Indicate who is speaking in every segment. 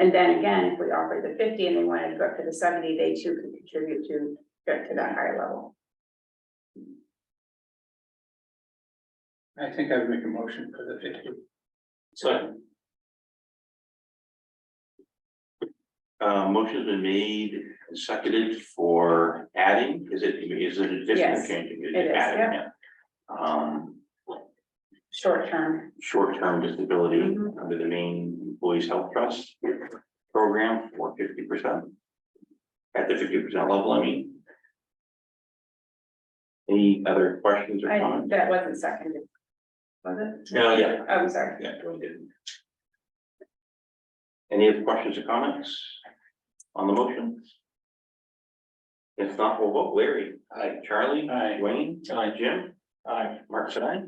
Speaker 1: And then again, if we offer the fifty and they wanted to go up to the seventy, they too could contribute to, get to that higher level.
Speaker 2: I think I would make a motion for the fifty. So.
Speaker 3: Uh, motion's been made and seconded for adding, is it, is it addition or
Speaker 1: Yes,
Speaker 3: changing?
Speaker 1: it is,
Speaker 3: Adding,
Speaker 1: yeah.
Speaker 3: Um,
Speaker 1: Short term,
Speaker 3: short-term disability
Speaker 1: Mhm.
Speaker 3: under the main employees health trust program for fifty percent. At the fifty percent level, I mean. Any other questions or
Speaker 1: I,
Speaker 3: comments?
Speaker 1: that wasn't seconded. Was it?
Speaker 3: No, yeah,
Speaker 1: I'm sorry.
Speaker 3: yeah, we didn't. Any other questions or comments on the motion? If not, we'll vote Larry. Hi. Charlie.
Speaker 2: Aye.
Speaker 3: Wayne.
Speaker 2: Aye.
Speaker 3: Jim.
Speaker 2: Aye.
Speaker 3: Mark said aye.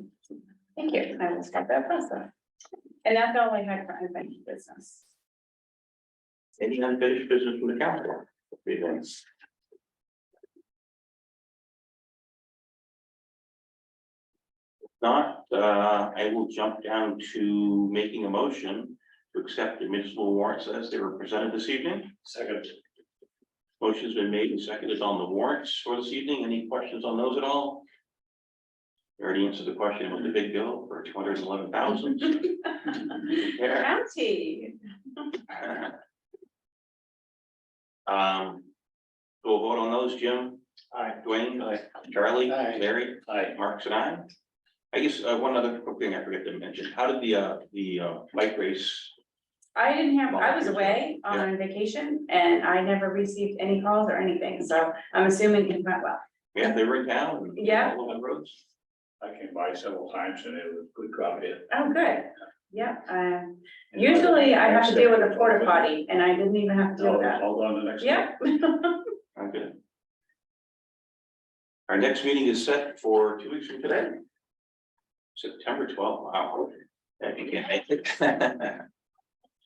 Speaker 1: Thank you. I will start that process. And that's all I had for unfinished business.
Speaker 3: Any unfinished business from the council? Three things. Not, uh, I will jump down to making a motion to accept the municipal warrants as they were presented this evening.
Speaker 2: Second.
Speaker 3: Motion's been made and seconded on the warrants for this evening. Any questions on those at all? You Already answered the question with the big bill for two hundred and eleven thousand. Yeah.
Speaker 1: County.
Speaker 3: Um, we'll vote on those, Jim,
Speaker 2: Aye.
Speaker 3: Dwayne,
Speaker 2: Aye.
Speaker 3: Charlie,
Speaker 2: Aye.
Speaker 3: Larry,
Speaker 2: Aye.
Speaker 3: Marks and I. I guess, uh, one other quick thing I forgot to mention, how did the, uh, the, uh, bike race?
Speaker 1: I didn't have, I was away on vacation and I never received any calls or anything, so I'm assuming it went well.
Speaker 3: Yeah, they were in town. and
Speaker 1: Yeah.
Speaker 3: All over the roads.
Speaker 2: I came by several times and it was a good crowd here.
Speaker 1: Oh, good. Yeah, um, usually I have to deal with a porta potty and I didn't even have to
Speaker 2: No,
Speaker 1: do
Speaker 2: it's
Speaker 1: that.
Speaker 2: all on the next.
Speaker 1: Yeah.
Speaker 3: I'm good. Our next meeting is set for two weeks from today. September twelfth, wow, if you can't make it.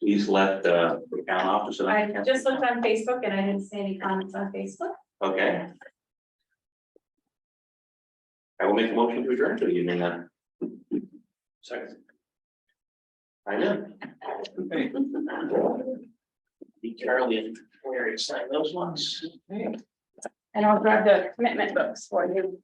Speaker 3: Please let, uh, the town office. and-
Speaker 1: I just looked on Facebook and I didn't see any comments on Facebook.
Speaker 3: Okay. I will make a motion to adjourn to the evening then.
Speaker 2: Second.
Speaker 3: I know. Be Charlie and Larry sign those ones.
Speaker 1: And I'll grab the commitment books for you.